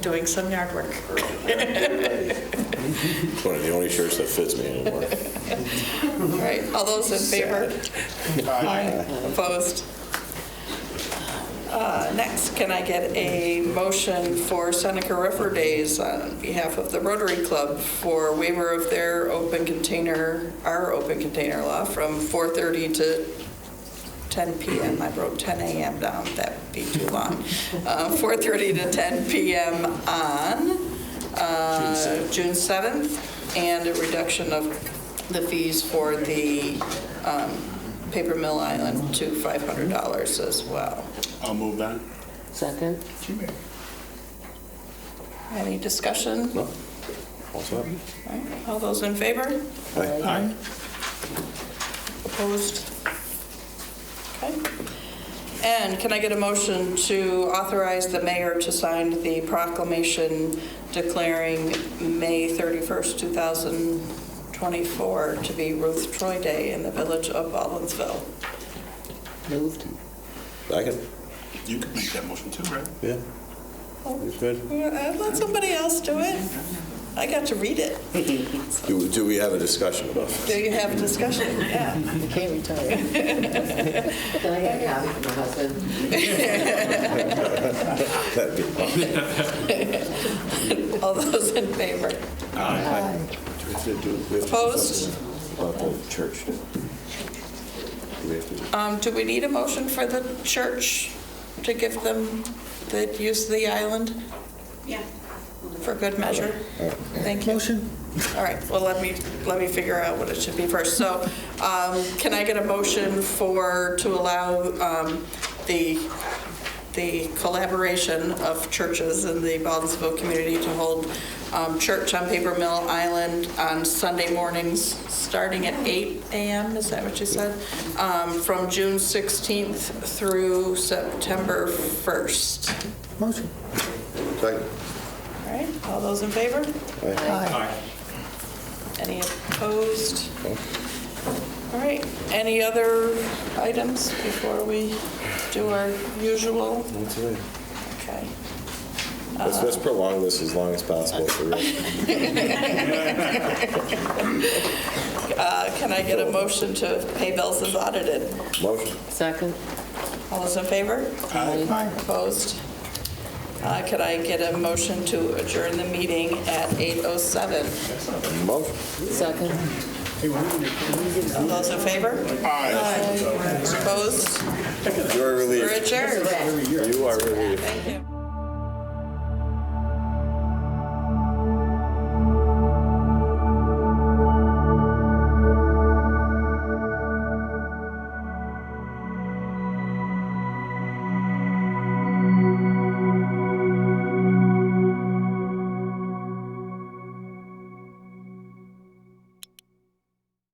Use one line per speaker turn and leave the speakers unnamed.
doing some yard work.
It's one of the only shirts that fits me anymore.
All right, all those in favor? Aye. Opposed? Uh, Next, can I get a motion for Seneca River Days on behalf of the Rotary Club for waiver of their open container, our open container law from 4:30 to 10 PM? I wrote 10 AM down, that'd be too long. Uh, 4:30 to 10 PM on uh, June 7th, and a reduction of the fees for the um, Paper Mill Island to $500 as well.
I'll move that.
Second?
Any discussion?
No? What's up?
All right, All those in favor?
Aye.
Aye.
Opposed? Okay. And can I get a motion to authorize the mayor to sign the proclamation declaring May 31st, 2024 to be Ruth Troy Day in the village of Baldwinsville?
Moved.
I can,
You could make that motion too, right? Oh.
yeah. It's good.
Uh, Let somebody else do it. I got to read it.
Do, do we have a discussion about this?
Do you have a discussion? Yeah.
You can't retire. Can I get a copy from my husband?
That'd be fun.
All those in favor? Opposed?
About the church. Do we have to-
Um, Do we need a motion for the church to give them the use of the island?
Yeah.
For good measure. Thank you. Motion. All right, well, let me, let me figure out what it should be first. So um, can I get a motion for, to allow um, the, the collaboration of churches in the Baldwinsville community to hold um, church on Paper Mill Island on Sunday mornings, starting at 8 a.m., is that what you said? Um, From June 16th through September 1st.
Second.
All right, all those in favor? Aye. Any opposed? All right, any other items before we do our usual?
That's it.
Okay.
Let's, let's prolong this as long as possible for real.
Uh, Can I get a motion to pay bills as audited?
Motion.
Second?
All those in favor? Opposed? Uh, Could I get a motion to adjourn the meeting at 8:07?
Motion.
Second?
All those in favor? Aye. Opposed?
You are
We're
relieved.
adjourned.
You are relieved.
Thank you.